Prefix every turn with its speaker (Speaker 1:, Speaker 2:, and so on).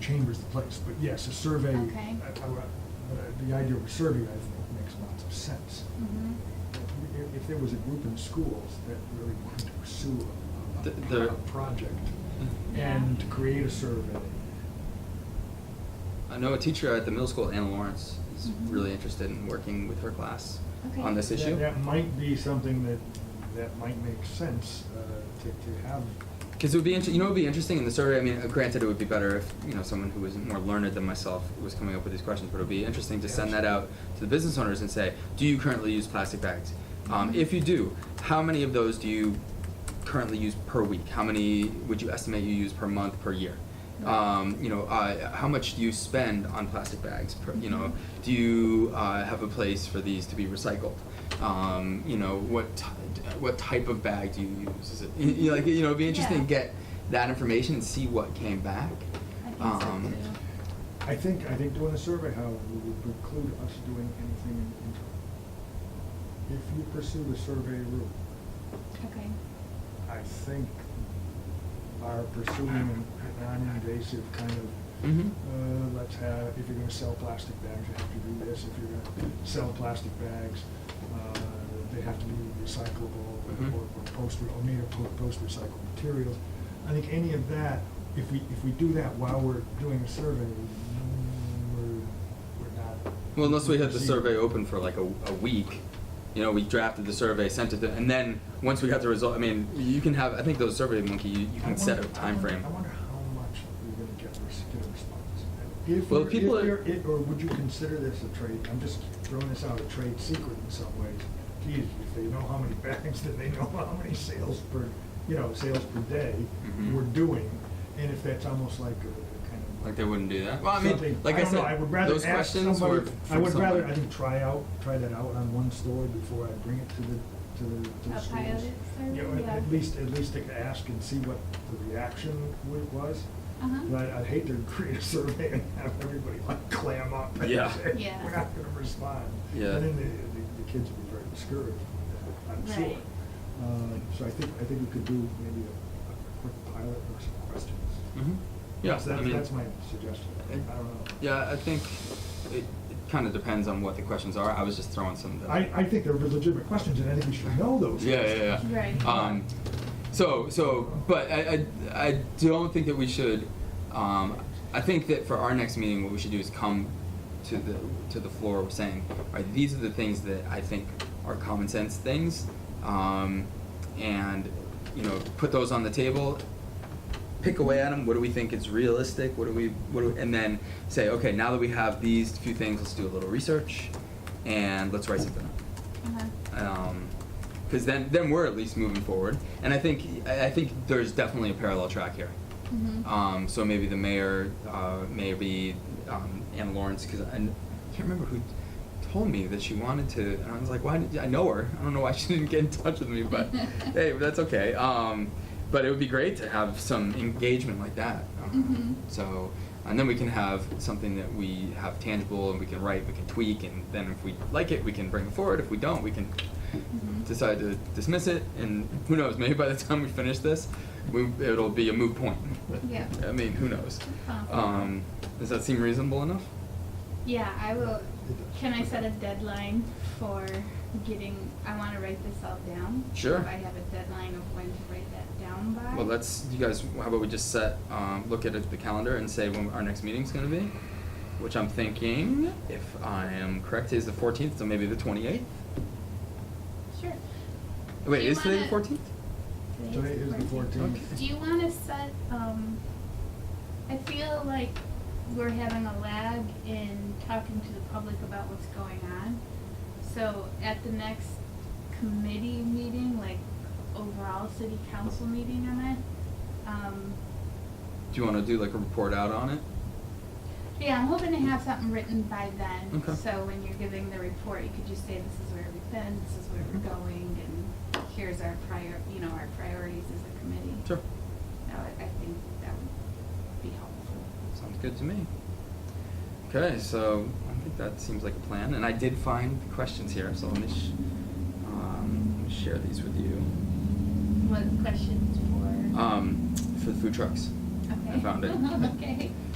Speaker 1: chamber's the place, but yes, a survey, uh, I-
Speaker 2: Okay.
Speaker 1: I- I- the idea of a survey, I think, makes lots of sense.
Speaker 2: Mhm.
Speaker 1: If- If there was a group in schools that really wanted to pursue a-
Speaker 3: The-
Speaker 1: a,
Speaker 3: the-
Speaker 1: a project
Speaker 2: Hmm. Yeah.
Speaker 1: and to create a survey,
Speaker 3: I know a teacher at the middle school, Anna Lawrence, is
Speaker 2: Mhm.
Speaker 3: really interested in working with her class
Speaker 2: Okay.
Speaker 3: on this
Speaker 1: that-
Speaker 3: issue.
Speaker 1: That might be something that, that might make sense uh, to, to have.
Speaker 3: Because it would be, inter- you know, it would be interesting in the survey. I mean, uh, granted, it would be better if you know someone who was more learned than myself was coming up with these questions. But it would be interesting to send that out to the business owners and say, "Do you currently use plastic bags? Um, if you do, how many of those do you currently use per week? How many would you estimate you use per month, per year? Um, you know, uh, how much do you spend on plastic bags? Per, you know, do you uh, have a place for these to be recycled? Um, you know, what t- what type of bag do you use? Is it you, you like you know? It'd be interesting to
Speaker 2: Yeah.
Speaker 3: get that information and see what came back.
Speaker 2: I think so
Speaker 3: Um,
Speaker 2: too.
Speaker 1: I think, I think doing a survey, however, would preclude us doing anything in the interim. If you pursue the survey route,
Speaker 2: Okay.
Speaker 1: I think are pursuing an a non-invasive kind of,
Speaker 3: Mhm.
Speaker 1: uh, let's have, if you're gonna sell plastic bags, you have to do this, if you're gonna sell plastic bags, uh, they have to be recyclable
Speaker 3: Mhm.
Speaker 1: or, or post, or made of po- post-recycled materials. I think any of that, if we, if we do that while we're doing a survey, mm, we're, we're not.
Speaker 3: Well, unless we had the
Speaker 1: proceeding.
Speaker 3: survey open for like a, a week, you know, we drafted the survey, sent it, to- and then once we got the result, I mean, you can have. I think those survey monkey, you, you
Speaker 1: I
Speaker 3: can set a
Speaker 1: wonder- I
Speaker 3: time
Speaker 1: wonder-
Speaker 3: frame.
Speaker 1: I wonder how much we're gonna get, res- get a response. If
Speaker 3: Well,
Speaker 1: you're, if
Speaker 3: people are-
Speaker 1: you're, it- or would you consider this a trade, I'm just throwing this out, a trade secret in some ways. Geez, if they know how many bags, then they know how many sales per, you know, sales per day
Speaker 3: Mhm.
Speaker 1: we're doing. And if that's almost like a kind of.
Speaker 3: Like they wouldn't do that. Well, I mean,
Speaker 1: something-
Speaker 3: like I,
Speaker 1: don't
Speaker 3: said,
Speaker 1: know, I would rather
Speaker 3: those
Speaker 1: ask
Speaker 3: questions
Speaker 1: somebody-
Speaker 3: were.
Speaker 1: I
Speaker 3: from
Speaker 1: would rather,
Speaker 3: someone.
Speaker 1: I think, try out, try that out on one store before I bring it to the, to the, to the
Speaker 2: A
Speaker 1: schools.
Speaker 2: pilot survey,
Speaker 1: You know, at-
Speaker 2: yeah.
Speaker 1: At least, at least to ask and see what the reaction wa- was.
Speaker 2: Uh-huh.
Speaker 1: But I'd hate to create a survey and have everybody like clam up and
Speaker 3: Yeah.
Speaker 1: say,
Speaker 2: Yeah.
Speaker 1: we're not gonna respond.
Speaker 3: Yeah.
Speaker 1: And then the, the, the kids would be very discouraged, with that, I'm
Speaker 2: Right.
Speaker 1: sure. Uh, so I think, I think we could do maybe a, a quick pilot or some questions.
Speaker 3: Mhm. Yeah,
Speaker 1: So
Speaker 3: I
Speaker 1: That's,
Speaker 3: mean, eh,
Speaker 1: that's my suggestion. I don't know.
Speaker 3: Yeah, I think it, it kind of depends on what the questions are. I was just throwing some. of the-
Speaker 1: I, I think they're legitimate questions, and I think we should know those.
Speaker 3: Yeah, yeah,
Speaker 1: questions.
Speaker 3: yeah.
Speaker 2: Right.
Speaker 3: Um, so, so, but I, I, I don't think that we should. Um, I think that for our next meeting, what we should do is come to the to the floor saying, all right, these are the things that I think are common sense things, um, and you know, put those on the table. Pick away at them. What do we think is realistic? What do we, what do, and then say, okay, now that we have these few things, let's do a little research, and let's write something up
Speaker 2: Uh-huh.
Speaker 3: because Um, then then we're at least moving forward. And I think I I think there's definitely a parallel track here.
Speaker 2: Mhm.
Speaker 3: Um, so maybe the mayor, uh, maybe um, Anna Lawrence, because I, n- I can't remember who told me that she wanted to, and I was like, why? Did, I know her. I don't know why she didn't get in touch with me, but hey, that's okay. Um, but it would be great to have some engagement like that. Um,
Speaker 2: Mhm.
Speaker 3: So, and then we can have something that we have tangible, and we can write, we can tweak, and then if we like it, we can bring it forward. If we don't, we can
Speaker 2: Mhm.
Speaker 3: decide to dismiss it, and who knows? Maybe by the time we finish this, we, it'll be a moot point.
Speaker 2: Yeah.
Speaker 3: I mean, who knows?
Speaker 2: Huh.
Speaker 3: Um, does that seem reasonable enough?
Speaker 2: Yeah, I will, can I set a deadline for getting, I wanna write this all down?
Speaker 3: Sure.
Speaker 2: If I have a deadline of when to write that down by?
Speaker 3: Well, that's you guys. How about we just set, um, look at the calendar and say when our next meeting's going to be, which I'm thinking, if I am correct, is the 14th, so maybe the 28th.
Speaker 2: Sure.
Speaker 3: Wait,
Speaker 2: Do you
Speaker 3: is today the
Speaker 2: wanna-
Speaker 3: 14th?
Speaker 1: Today is the fourteenth.
Speaker 2: Do you wanna set, um, I feel like we're having a lag in talking to the public about what's going on. So at the next committee meeting, like overall city council meeting on it, um,
Speaker 3: Do you want to do like a report out on it?
Speaker 2: yeah, I'm hoping to have something written by then.
Speaker 3: Okay.
Speaker 2: So when you're giving the report, you could just say, this is where we've been, this is where we're
Speaker 3: Mm-hmm.
Speaker 2: going, and here's our prior, you know, our priorities as a committee.
Speaker 3: Sure.
Speaker 2: That would, I think that would be helpful.
Speaker 3: Sounds good to me. Okay, so I think that seems like a plan, and I did find the questions here, so let me, sh- um, let me share these with you.
Speaker 2: What questions for?
Speaker 3: Um, for the food trucks.
Speaker 2: Okay.
Speaker 3: Ah, I found it.
Speaker 2: Okay.